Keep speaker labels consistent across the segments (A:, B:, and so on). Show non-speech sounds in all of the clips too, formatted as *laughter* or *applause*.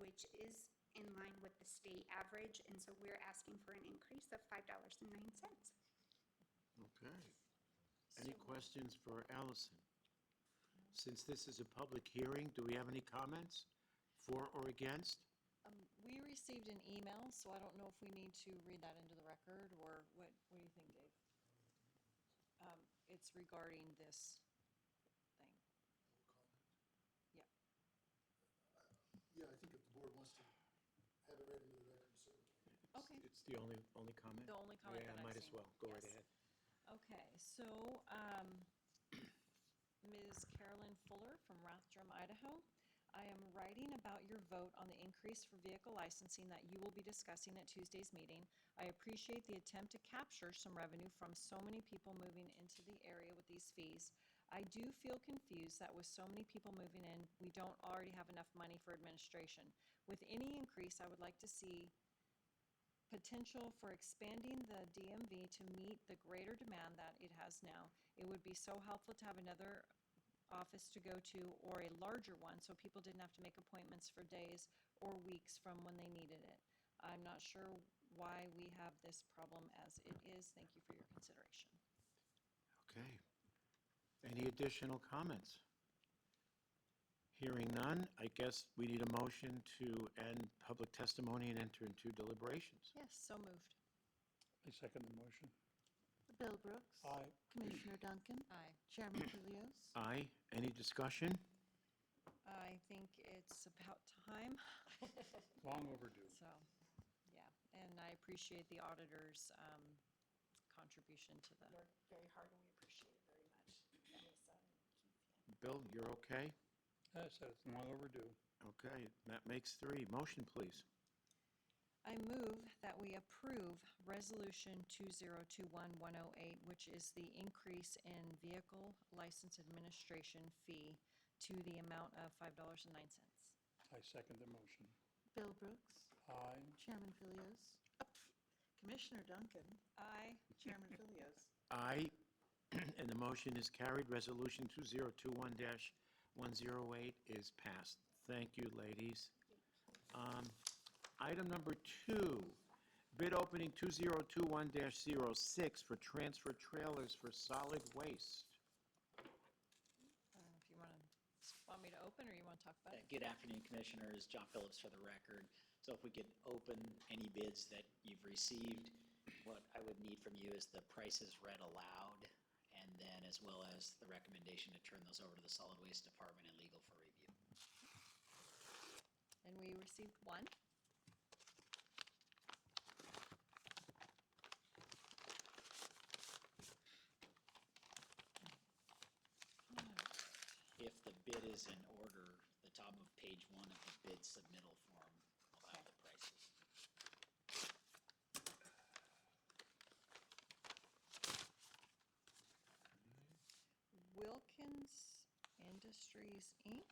A: which is in line with the state average, and so we're asking for an increase of five dollars and nine cents.
B: Okay. Any questions for Allison? Since this is a public hearing, do we have any comments for or against?
C: Um, we received an email, so I don't know if we need to read that into the record, or what, what do you think, Dave? Um, it's regarding this thing.
D: Yeah, I think if the board wants to have it read into the record, so.
C: Okay.
B: It's the only, only comment?
C: The only comment that
B: Yeah,
C: I've
B: might as
C: seen.
B: well, go right
C: Yes.
B: ahead.
C: Okay, so, um, *clears throat* Ms. Carolyn Fuller from Rathdrum, Idaho. I am writing about your vote on the increase for vehicle licensing that you will be discussing at Tuesday's meeting. I appreciate the attempt to capture some revenue from so many people moving into the area with these fees. I do feel confused that with so many people moving in, we don't already have enough money for administration. With any increase, I would like to see potential for expanding the DMV to meet the greater demand that it has now. It would be so helpful to have another office to go to or a larger one, so people didn't have to make appointments for days or weeks from when they needed it. I'm not sure why we have this problem as it is. Thank you for your consideration.
B: Okay. Any additional comments? Hearing none, I guess we need a motion to end public testimony and enter into deliberations.
C: Yes, so moved.
E: I second the motion.
F: Bill Brooks.
E: Aye.
F: Commissioner Duncan.
C: Aye.
F: Chairman Chilios.
B: Aye. Any discussion?
C: I think it's about time,
E: *laughs* Long overdue.
C: so, yeah. And I appreciate the auditor's um, contribution to the.
G: worked very hard and we appreciate it very much. um, Melissa and Keith, yeah.
B: Bill, you're okay?
E: I said it's long overdue.
B: Okay, that makes three. Motion, please.
C: I move that we approve Resolution 2021108, which is the increase in vehicle license administration fee to the amount of $5.09.
E: I second the motion.
F: Bill Brooks.
E: Aye.
F: Chairman Chilios. Uh, pff, Commissioner Duncan.
C: Aye.
F: Chairman Chilios.
B: Aye, *clears throat* and the motion is carried. Resolution 2021-108 is passed. Thank you, ladies. Um, Item number two, bid opening 2021-06 for transfer trailers for solid waste.
C: I don't know If you want to, want me to open or you want to talk about it?
H: Uh, Good afternoon, Commissioners. John Phillips for the record. So if we could open any bids that you've received, what I would need from you is the prices read aloud, and then as well as the recommendation to turn those over to the Solid Waste Department and legal for review.
C: And we received one.
H: If the bid is in order, the top of page one of the bid submittal form will have the prices.
C: Wilkins Industries, Inc.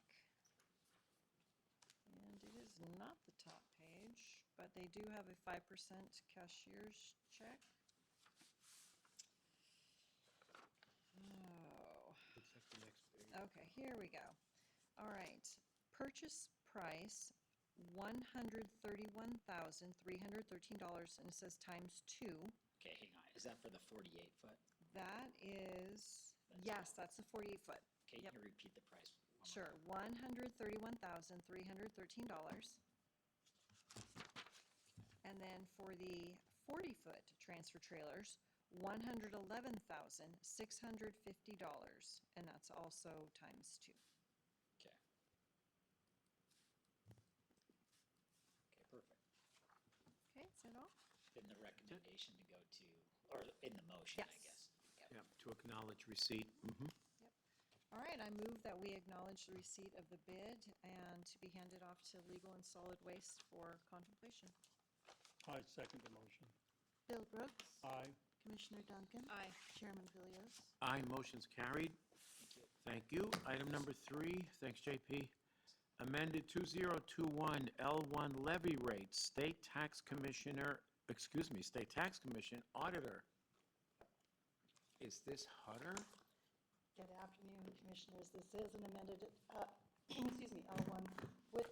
C: And it is not the top page, but they do have a five percent cashier's check. Oh. Okay, here we go. All right, purchase price, one hundred thirty-one thousand, three hundred thirteen dollars, and it says times two.
H: Okay, hang on. Is that for the forty-eight foot?
C: That is,
H: That's
C: yes, that's the forty-eight foot.
H: Okay,
C: Yep.
H: can you repeat the price? one more
C: Sure, one hundred thirty-one thousand, three hundred thirteen dollars. And then for the forty-foot transfer trailers, one hundred eleven thousand, six hundred fifty dollars, and that's also times two.
H: time? Okay. Okay, perfect.
C: Okay, is that all?
H: In the recommendation to go to, or in the motion, I
C: Yes.
H: guess.
B: Yep, to acknowledge receipt. Mhm.
C: All right, I move that we acknowledge the receipt of the bid and to be handed off to Legal and Solid Waste for contemplation.
E: I second the motion.
F: Bill Brooks.
E: Aye.
F: Commissioner Duncan.
C: Aye.
F: Chairman Chilios.
B: Aye, motion's carried. Thank you. Item number three, thanks, JP. Amended 2021 L1 levy rate, state tax commissioner, excuse me, state tax commission auditor. Is this Hutter?
G: Good afternoon, Commissioners. This is an amended, uh, excuse me, L1 with